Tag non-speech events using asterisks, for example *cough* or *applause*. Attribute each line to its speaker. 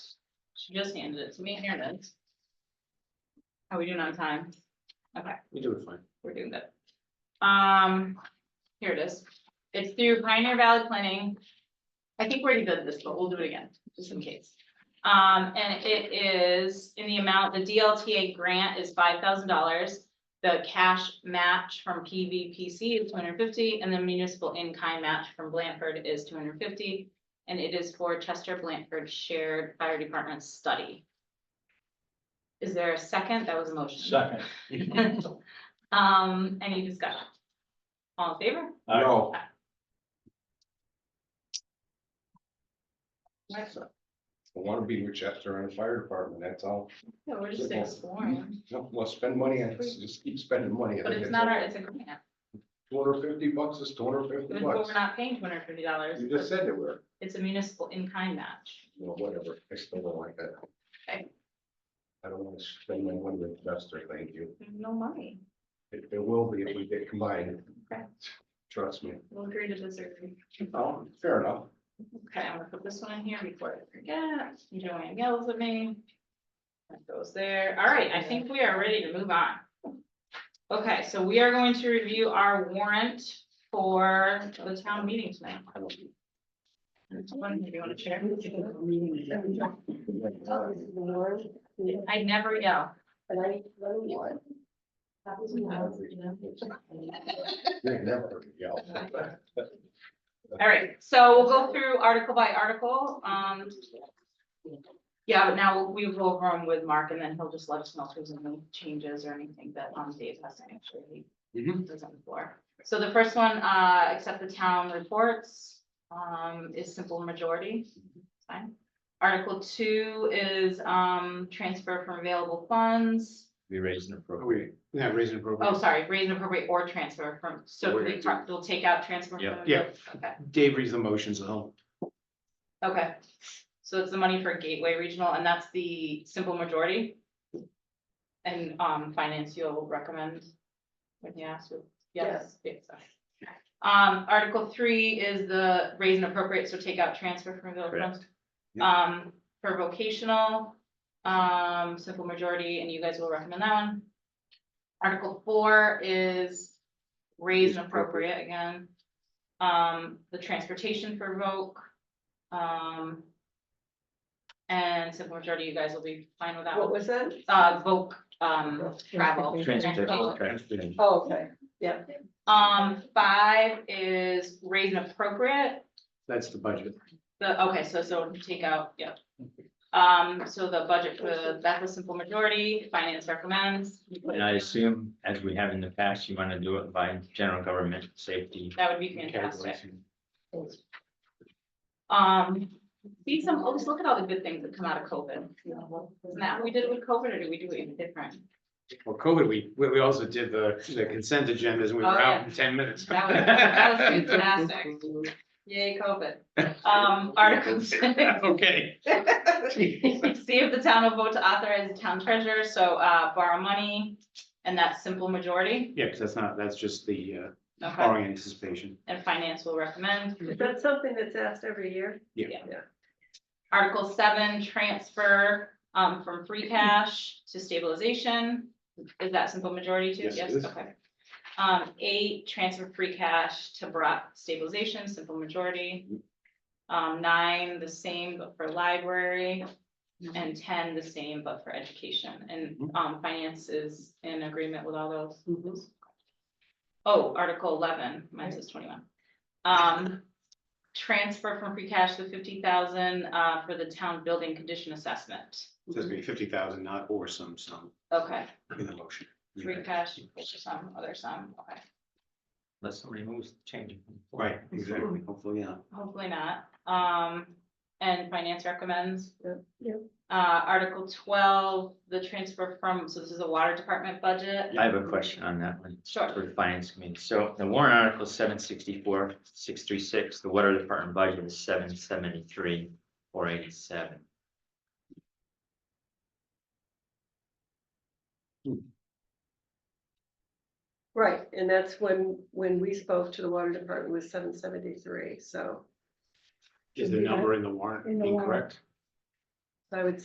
Speaker 1: She just handed it to me, here it is. How we doing on time? Okay,
Speaker 2: You do it fine.
Speaker 1: we're doing good. Um, here it is. It's through Pioneer Valley Planning. I think we already did this, but we'll do it again, just in case. Um, and it is in the amount, the DLTA grant is five thousand dollars. The cash match from PVPC is two hundred fifty, and the municipal in-kind match from Blanford is two hundred fifty. And it is for Chester Blanford Shared Fire Department Study. Is there a second? That was a motion.
Speaker 3: Second.
Speaker 1: *laughs* Um, any discussion? All in favor?
Speaker 2: No. I
Speaker 1: Right.
Speaker 2: wanna be with Chester and the fire department, that's all.
Speaker 1: No, we're
Speaker 2: just
Speaker 1: exploring,
Speaker 2: No, Well, spend money on, this, just keep spending money.
Speaker 1: but it's not our, it's a grant,
Speaker 2: Two hundred fifty bucks is two hundred
Speaker 1: but
Speaker 2: fifty bucks.
Speaker 1: we're not paying two hundred and fifty dollars,
Speaker 2: You just said it were,
Speaker 1: it's a municipal in-kind match.
Speaker 2: you know, whatever, I still don't like that.
Speaker 1: Okay.
Speaker 2: I don't wanna spend my money with Chester, thank you.
Speaker 1: There's no money,
Speaker 2: It, it will be if we get combined.
Speaker 1: Okay.
Speaker 2: Trust me.
Speaker 1: we'll agree to disagree.
Speaker 2: Oh, fair enough.
Speaker 1: Okay, I'm gonna put this one in here before I forget, Joanne yells at me. That goes there, all right, I think we are ready to move on. Okay, so we are going to review our warrant for the town meeting tonight.
Speaker 2: I don't-
Speaker 1: One, you wanna share?
Speaker 4: Oh, this is the Lord.
Speaker 1: I never yell.
Speaker 4: And I need to know you. That was me, I was, you know.
Speaker 2: They never yell.
Speaker 1: All right, so we'll go through article by article, um. Yeah, but now we will run with Mark and then he'll just let us know if there's any changes or anything that, um, Dave has to make sure he
Speaker 2: Mhm.
Speaker 1: does on the floor. So the first one, uh, accept the town reports, um, is simple majority. Fine. Article two is, um, transfer from available funds.
Speaker 5: We raised an
Speaker 2: Are
Speaker 5: appropriate.
Speaker 2: we, yeah, raising
Speaker 1: Oh,
Speaker 2: appropriate.
Speaker 1: sorry, raise and appropriate or transfer from, so
Speaker 2: We're
Speaker 1: we
Speaker 2: gonna do-
Speaker 1: will take out transfer. from
Speaker 5: Yeah.
Speaker 1: available- Okay.
Speaker 2: Dave reads the motions at home.
Speaker 1: Okay, so it's the money for Gateway Regional, and that's the simple majority? And, um, finance you'll recommend when you ask, you- yes, yes, okay. Um, article three is the raise and appropriate, so take out transfer from the
Speaker 5: Correct.
Speaker 1: funds. Um, for vocational, um, simple majority, and you guys will recommend that one. Article four is raise and appropriate again. Um, the transportation for voc, um. And simple majority, you guys will be fine with that
Speaker 4: What
Speaker 1: one,
Speaker 4: was that?
Speaker 1: uh, voc, um, travel.
Speaker 5: Transportation, transportation.
Speaker 4: Oh, okay, yeah.
Speaker 1: Um, five is raise and appropriate,
Speaker 2: That's the budget.
Speaker 1: the, okay, so, so take out, yep. Um, so the budget for that was simple majority, finance recommends. you put it
Speaker 5: And I
Speaker 1: in.
Speaker 5: assume, as we have in the past, you want to do it by general government safety.
Speaker 1: That would be fantastic. Um, see some, always look at all the good things that come out of COVID. Isn't that what we did with COVID, or did we do it even different?
Speaker 6: Well, COVID, we, we we also did the, the consent agendas and we were
Speaker 1: Oh,
Speaker 6: out in ten minutes.
Speaker 1: That was, that was
Speaker 6: *laughs*
Speaker 1: fantastic. Yay, COVID. Um, Article *laughs* six. *laughs*
Speaker 6: Okay.
Speaker 1: See if the town will vote to authorize the town treasurer, so, uh, borrow money, and that's simple majority.
Speaker 6: Yeah, because that's not, that's just the uh,
Speaker 1: Okay,
Speaker 6: borrowing anticipation.
Speaker 1: and finance will recommend.
Speaker 4: Is that something that's asked every year?
Speaker 1: Article seven, transfer, um, from free cash to stabilization. Is that simple majority too?
Speaker 6: Yes, it is.
Speaker 1: Okay. Um, eight, transfer free cash to brought stabilization, simple majority. Um, nine, the same but for library. And ten, the same but for education. And,
Speaker 6: Mm-hmm.
Speaker 1: um, finance is in agreement with all those. Oh, Article eleven, mine says twenty-one. Um, transfer from free cash to fifty thousand, uh, for the town building condition assessment.
Speaker 6: It Says
Speaker 1: Mm-hmm.
Speaker 6: be fifty thousand, not or some sum
Speaker 1: Okay,
Speaker 6: in the motion.
Speaker 1: free cash, some other sum, okay,
Speaker 5: Unless somebody moves, change. it.
Speaker 6: Right, exactly, hopefully, yeah.
Speaker 1: hopefully not. Um, and finance recommends.
Speaker 4: Yep, yep.
Speaker 1: Uh, Article twelve, the transfer from, so this is a water department budget.
Speaker 5: I have a question on that one.
Speaker 1: Sure.
Speaker 5: For the finance committee. So the warrant article seven sixty-four, six three six, the water department budget is seven seventy-three, four eighty-seven.
Speaker 4: Right, and that's when, when we spoke to the water department was seven seventy-three, so
Speaker 6: Is the number in the warrant
Speaker 7: In the warrant.
Speaker 6: incorrect?
Speaker 4: I would